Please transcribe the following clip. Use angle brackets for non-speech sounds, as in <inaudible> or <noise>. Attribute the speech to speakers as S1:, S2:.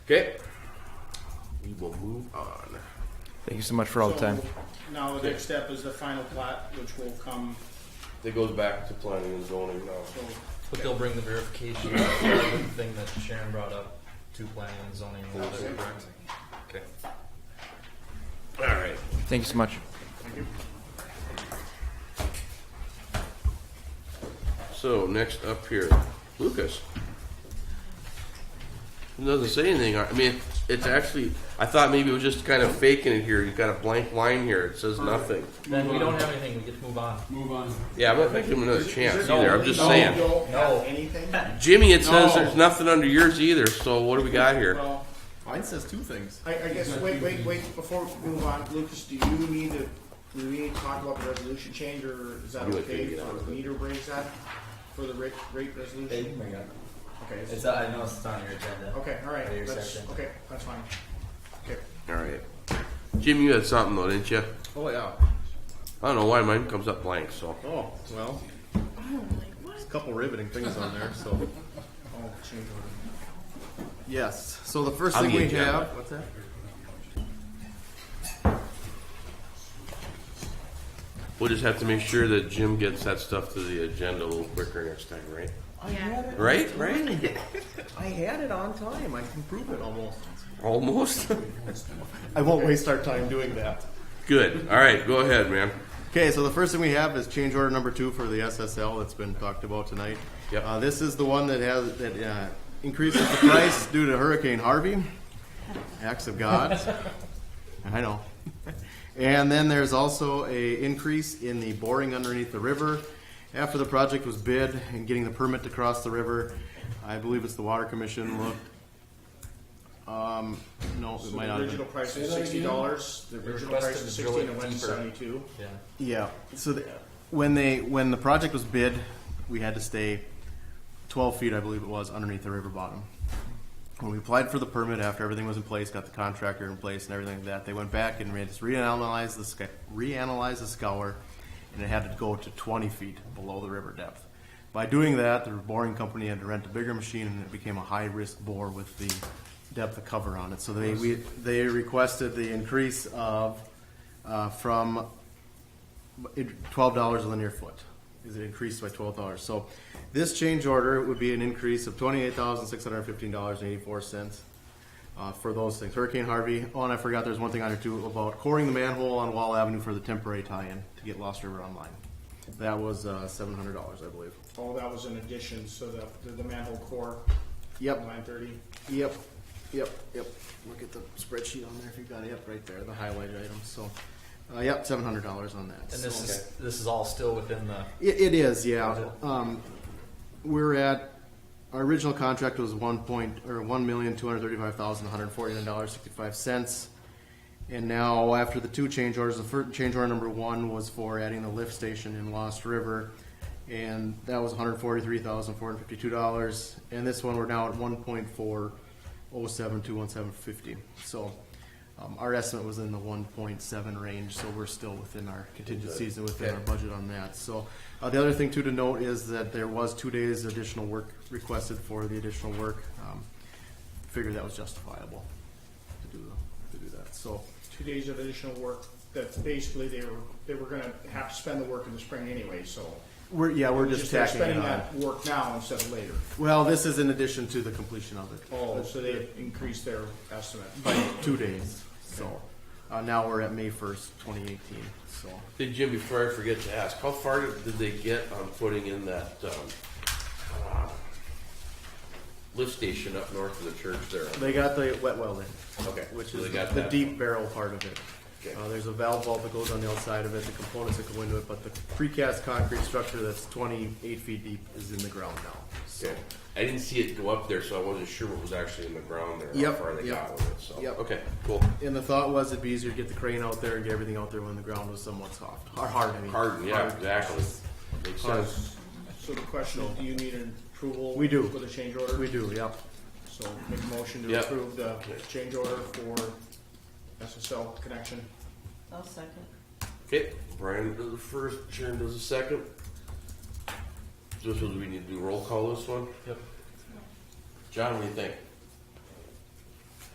S1: Okay. We will move on.
S2: Thank you so much for all the
S3: So,
S2: time.
S3: Now the next step is the final plat, which will come,
S1: It goes back to planning and zoning now.
S3: so
S4: But they'll bring the verification of the thing that Sharon brought up to planning and zoning. and all that, correct? Okay.
S1: All right.
S2: Thank you so much.
S1: So next up here, Lucas. It doesn't say anything. I mean, it's actually. I thought maybe it was just kind of faking it here. You got a blank line here. It says nothing.
S4: Then we don't have anything. We get to move on.
S5: Move on.
S1: Yeah, I'm not giving him another chance either. I'm just saying,
S3: don't have anything?
S1: <laughs> Jimmy. It says
S3: No.
S1: there's nothing under yours either. So what do we got here?
S3: Well,
S6: Mine says two things.
S3: I, I guess, wait, wait, wait, before we move on, Lucas, do you need to, do we need to talk about the resolution change, or is that
S1: You like
S3: okay
S1: to get out
S3: for
S1: of it.
S3: meter brings that? For the rate, rate resolution? Okay,
S4: It's, I know it's on your agenda.
S3: okay, all right,
S4: Are you
S3: that's,
S4: accepting?
S3: okay, that's fine. Okay,
S1: All right, Jimmy, you had something though, didn't you?
S6: Oh yeah.
S1: I don't know why mine comes up blank. So
S6: Oh well. There's a couple riveting things on there. So
S3: oh, change order.
S6: yes. So the first
S1: On
S6: thing
S1: the
S6: we
S1: agenda.
S6: have. What's that?
S1: we'll just have to make sure that Jim gets that stuff to the agenda a little quicker next time, right?
S7: Yeah.
S1: Right, right.
S6: I had it on time. I can prove it almost. <laughs>
S1: Almost.
S6: I won't waste our time doing that.
S1: Good. All right, go ahead, man.
S6: Okay, so the first thing we have is change order number two for the SSL that's been talked about tonight.
S1: Yep.
S6: Uh, this is the one that has, that, uh, increases the price due to Hurricane Harvey. Acts of God. I know. And then there's also a increase in the boring underneath the river. After the project was bid and getting the permit to cross the river, I believe it's the Water Commission looked. Um, no, it
S3: So
S6: might
S3: the
S6: not have been.
S3: original price was sixty dollars, the original
S4: requested
S3: price was
S4: to drill
S3: sixteen,
S4: it
S3: it went to
S4: deeper.
S3: seventy-two.
S4: Yeah.
S6: Yeah. So the, when they when the project was bid, we had to stay twelve feet, I believe it was, underneath the river bottom. When we applied for the permit, after everything was in place, got the contractor in place and everything like that, they went back and made us reanalyze the sc- reanalyze the scour, and it had to go to twenty feet below the river depth. By doing that, the boring company had to rent a bigger machine, and it became a high risk bore with the depth of cover on it. So they we, they requested the increase of uh, from it- twelve dollars a linear foot. Is it increased by twelve dollars? So this change order would be an increase of twenty-eight thousand six hundred fifteen dollars and eighty-four cents uh, for those things. Hurricane Harvey. Oh, and I forgot there's one thing on here too about coring the manhole on Wall Avenue for the temporary tie-in to get Lost River online. That was uh, seven hundred dollars, I believe.
S3: Oh, that was an addition, so the, the- the manhole core,
S6: Yep.
S3: nine thirty.
S6: Yep, yep, yep. Look at the spreadsheet on there if you got it. Yep, right there, the highlighted items. So, uh, yep, seven hundred dollars on that.
S4: And
S6: So-
S4: this is this is all still within the.
S6: It, it is, yeah. Um, we're at, our original contract was one point, or one million, two hundred thirty-five thousand, one hundred forty-nine dollars, sixty-five cents. And now, after the two change orders, the first change order number one was for adding the lift station in Lost River. And that was hundred forty-three thousand, four hundred fifty-two dollars. And this one, we're now at one point four oh seven, two one seven fifty. So, um, our estimate was in the one point seven range, so we're still within our contingencies and within our budget on that. So, uh, the other thing too to note is that there was two days additional work requested for the additional work. Um, Figured that was justifiable to do, to do that, so.
S3: two days of additional work that basically they were, they were gonna have to spend the work in the spring anyway, so.
S6: We're, yeah, we're just
S3: they're
S6: tacking it
S3: Spending
S6: on.
S3: that work now instead of later.
S6: Well, this is in addition to the completion of it.
S3: Oh, so they increased their estimate.
S6: By two days, so, uh, now we're at May first, twenty eighteen, so.
S1: Hey Jim, before I forget to ask, how far did did they get on putting in that um, uh, lift station up north of the church there?
S6: They got the wet well in.
S1: Okay,
S6: which
S1: so
S6: is
S1: they got
S6: the
S1: that.
S6: deep barrel part of it.
S1: Okay.
S6: Uh, there's a valve vault that goes on the outside of it, the components that go into it, but the precast concrete structure that's 28 feet deep is in the ground now. So,
S1: Okay. I didn't see it go up there, so I wasn't sure what was actually in the ground there.
S6: Yep,
S1: How far they
S6: yep,
S1: got with it. So
S6: yep.
S1: okay, cool.
S6: and the thought was it'd be easier to get the crane out there and get everything out there when the ground was somewhat soft, or hard. I mean.
S1: Harden, yeah, exactly. Makes
S6: Hard.
S1: sense.
S3: So the question is, do you need an approval?
S6: We do.
S3: For the change order?
S6: We do, yep.
S3: So make a motion to
S1: Yep.
S3: approve the change order for SSL connection.
S7: I'll second.
S1: Okay, Brian does the first, Sharon does the second. This was we need to do roll call this one.
S4: Yep.
S1: John, what do you think?